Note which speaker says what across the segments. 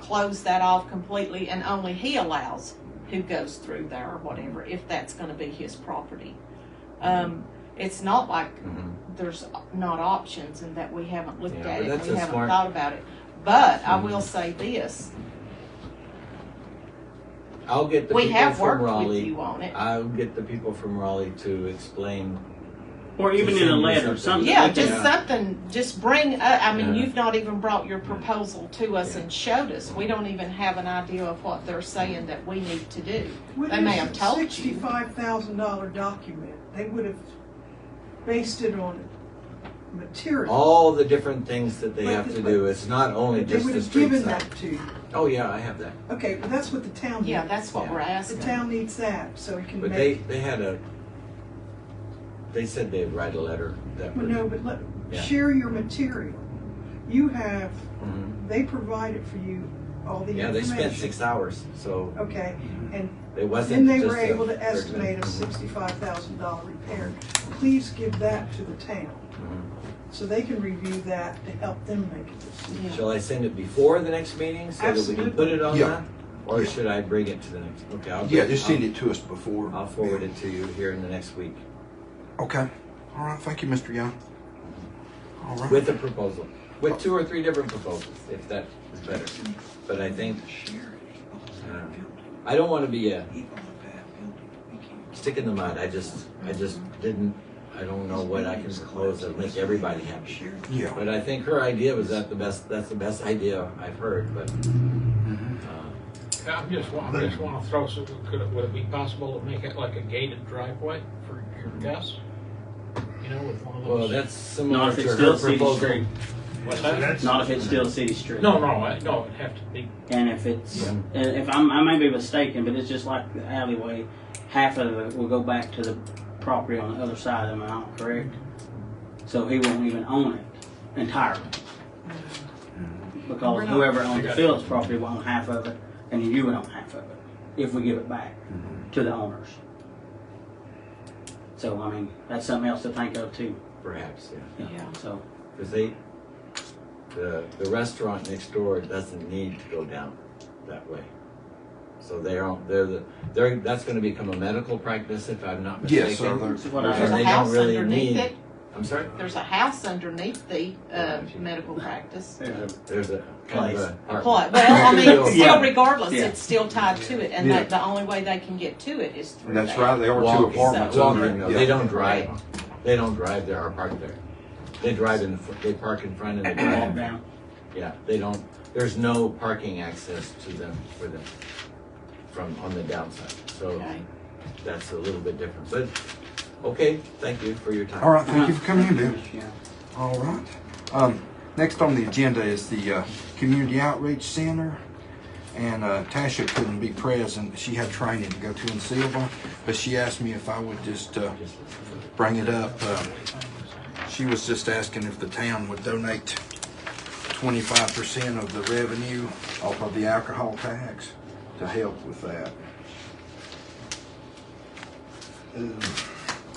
Speaker 1: close that off completely and only he allows who goes through there or whatever, if that's gonna be his property. Um, it's not like
Speaker 2: Mm-hmm.
Speaker 1: there's not options and that we haven't looked
Speaker 2: Yeah,
Speaker 1: at
Speaker 2: but
Speaker 1: it,
Speaker 2: that's
Speaker 1: we
Speaker 2: a
Speaker 1: haven't
Speaker 2: smart-
Speaker 1: thought about it. But I
Speaker 2: Mhm.
Speaker 1: will say this,
Speaker 2: I'll get the
Speaker 1: we
Speaker 2: people
Speaker 1: have
Speaker 2: from
Speaker 1: worked with
Speaker 2: Raleigh.
Speaker 1: you on it.
Speaker 2: I'll get the people from Raleigh to explain.
Speaker 3: Or even in a letter, something.
Speaker 1: Yeah,
Speaker 3: we can-
Speaker 1: just something, just bring, uh, I mean,
Speaker 2: Yeah.
Speaker 1: you've not even brought your proposal to us
Speaker 2: Yeah.
Speaker 1: and showed us. We don't even have an idea of what they're saying that we need to do.
Speaker 4: With
Speaker 1: They may have told you.
Speaker 4: Sixty-five thousand dollar document, they would have based it on material.
Speaker 2: All the different things that they
Speaker 4: But-
Speaker 2: have to
Speaker 4: but-
Speaker 2: do. It's not only
Speaker 4: They
Speaker 2: just
Speaker 4: would
Speaker 2: the
Speaker 4: have
Speaker 2: street
Speaker 4: given that
Speaker 2: side.
Speaker 4: to you.
Speaker 2: Oh, yeah, I have that.
Speaker 4: Okay, but that's what the town
Speaker 1: Yeah,
Speaker 4: needs.
Speaker 1: that's what we're
Speaker 4: The
Speaker 1: asking.
Speaker 4: town needs that, so it can
Speaker 2: But they,
Speaker 4: make,
Speaker 2: they had a, they said they'd write a letter that
Speaker 4: well,
Speaker 2: would.
Speaker 4: no, but let,
Speaker 2: Yeah.
Speaker 4: share your material. You have,
Speaker 2: Mhm.
Speaker 4: they provided for you all the
Speaker 2: Yeah,
Speaker 4: information.
Speaker 2: they spent six hours, so
Speaker 4: Okay, and
Speaker 2: it wasn't
Speaker 4: then they
Speaker 2: just
Speaker 4: were
Speaker 2: a-
Speaker 4: able to estimate a
Speaker 2: Mhm.
Speaker 4: sixty-five thousand dollar repair. Please give that to the town,
Speaker 2: Mhm.
Speaker 4: so they can review that to help them make a decision.
Speaker 1: Yeah.
Speaker 2: Shall I send it before the next meeting so that we can
Speaker 4: Absolutely.
Speaker 2: put it on
Speaker 5: Yeah.
Speaker 2: that? Or
Speaker 5: Yeah.
Speaker 2: should I bring it to the next? Okay, I'll.
Speaker 5: Yeah, just send it to us before.
Speaker 2: I'll forward it to you here in the next week
Speaker 5: Okay. All right. Thank you, Mr. Young. All right.
Speaker 2: with a proposal, with two or three different proposals, if that is better. But I think, uh, I don't want to be a stick in the mud. I just, I just didn't, I don't know what I can propose that'll make everybody happy.
Speaker 5: Yeah.
Speaker 2: But I think her idea was that the best, that's the best idea I've heard, but. uh,
Speaker 6: I'm just, wa- I just want to throw some, could it, would it be possible to make it like a gated driveway for your guests? You know, with one of
Speaker 2: Well,
Speaker 6: those.
Speaker 2: that's similar
Speaker 3: Not if
Speaker 2: to
Speaker 3: it's
Speaker 2: her
Speaker 3: still city
Speaker 2: proposal.
Speaker 3: street.
Speaker 6: What's
Speaker 7: So
Speaker 6: that?
Speaker 7: that's-
Speaker 3: Not if it's still city street.
Speaker 6: No, no, I- no, it'd have to be,
Speaker 3: And if it's,
Speaker 2: Yeah.
Speaker 3: and if I'm, I may be mistaken, but it's just like the alleyway, half of it will go back to the property on the other side, am I not correct? So he won't even own it entirely.
Speaker 1: We're
Speaker 3: Because
Speaker 1: not-
Speaker 3: whoever owns the Phillips property will own half of it, and you would own half of it, if we give it back to the owners. So, I mean, that's something else to think of too,
Speaker 2: Perhaps, yeah.
Speaker 1: Yeah.
Speaker 3: so.
Speaker 2: Because they, the, the restaurant next door doesn't need to go down that way. So they aren't, they're the, they're, that's gonna become a medical practice if I'm not mistaken.
Speaker 5: Yes, sir.
Speaker 3: that's what
Speaker 2: There's
Speaker 1: There's
Speaker 3: I-
Speaker 1: a
Speaker 2: they don't
Speaker 1: house
Speaker 2: really
Speaker 1: underneath
Speaker 2: need-
Speaker 1: it,
Speaker 2: I'm sorry?
Speaker 1: there's a house underneath the, uh,
Speaker 2: Right.
Speaker 1: medical practice.
Speaker 3: There's a-
Speaker 2: There's a kind of
Speaker 3: Place.
Speaker 2: a.
Speaker 1: Apply- Well, I mean,
Speaker 3: Yeah.
Speaker 1: still regardless,
Speaker 3: Yeah.
Speaker 1: it's still tied to it and
Speaker 5: Yeah.
Speaker 1: that the only way they can get to it is through
Speaker 5: And
Speaker 1: that.
Speaker 5: that's right. There are two
Speaker 2: Walking.
Speaker 5: apartments.
Speaker 1: Walking,
Speaker 5: under it,
Speaker 2: Walking, no,
Speaker 5: yeah.
Speaker 2: they don't drive, they don't drive there or park there. They drive in, the fr- they park in front and they
Speaker 3: Walk
Speaker 2: drive,
Speaker 3: down.
Speaker 2: yeah, they don't, there's no parking access to them, for them, from, on the downside, so
Speaker 1: Okay.
Speaker 2: that's a little bit different, but, okay, thank you for your time.
Speaker 5: All right. Thank you for coming in, Bill.
Speaker 3: Yeah.
Speaker 5: All right. Um, next on the agenda is the uh, Community Outreach Center. And uh, Tasha couldn't be present. She had training to go to in Silva, but she asked me if I would just uh, bring it up. Uh, she was just asking if the town would donate 25% of the revenue off of the alcohol tax to help with that.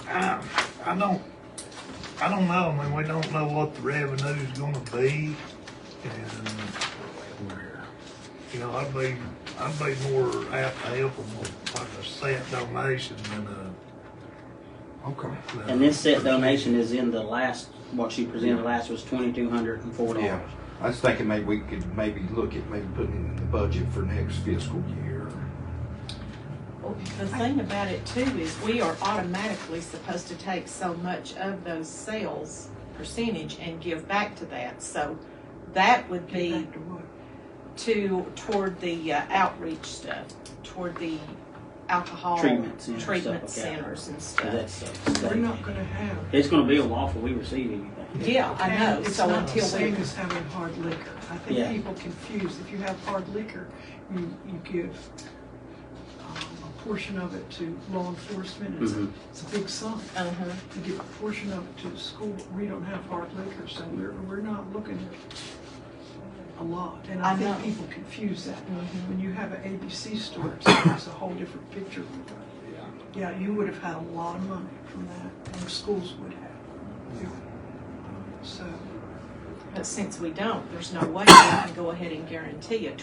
Speaker 7: I, I don't, I don't know, I mean, we don't know what the revenue's gonna be, and, you know, I'd be, I'd be more apt to help them with like a set donation than a.
Speaker 5: Okay.
Speaker 7: than
Speaker 3: And this set donation is in the last, what she presented last was twenty-two hundred and four
Speaker 5: Yeah.
Speaker 3: dollars.
Speaker 5: I was thinking maybe we could maybe look at maybe putting it in the budget for next fiscal year.
Speaker 1: Well, The thing about it too is we are automatically supposed to take so much of those sales percentage and give back to that. So that would be
Speaker 4: Back to what?
Speaker 1: to, toward the uh, outreach stuff, toward the alcohol
Speaker 3: Treatment centers,
Speaker 1: treatment
Speaker 3: stuff like that.
Speaker 1: centers and stuff.
Speaker 3: That's,
Speaker 4: We're
Speaker 3: uh,
Speaker 4: not gonna have.
Speaker 3: it's gonna be a while before we receive anything.
Speaker 1: Yeah, I know,
Speaker 4: It's
Speaker 1: so
Speaker 4: not the
Speaker 1: until we,
Speaker 4: same as having hard liquor. I
Speaker 3: Yeah.
Speaker 4: think people confuse, if you have hard liquor, you, you give um, a portion of it to law enforcement, it's,
Speaker 3: Mhm.
Speaker 4: it's a big sum.
Speaker 1: uh-huh,
Speaker 4: You give a portion of it to the school, we don't have hard liquor, so we're, we're not looking at a lot. And
Speaker 1: I
Speaker 4: I
Speaker 1: know.
Speaker 4: think people confuse that.
Speaker 1: Mhm.
Speaker 4: When you have an ABC store, it's a whole different picture. Yeah, you would have had a lot of money from that, and schools would have. So.
Speaker 1: but since we don't, there's no way we can go ahead and guarantee it.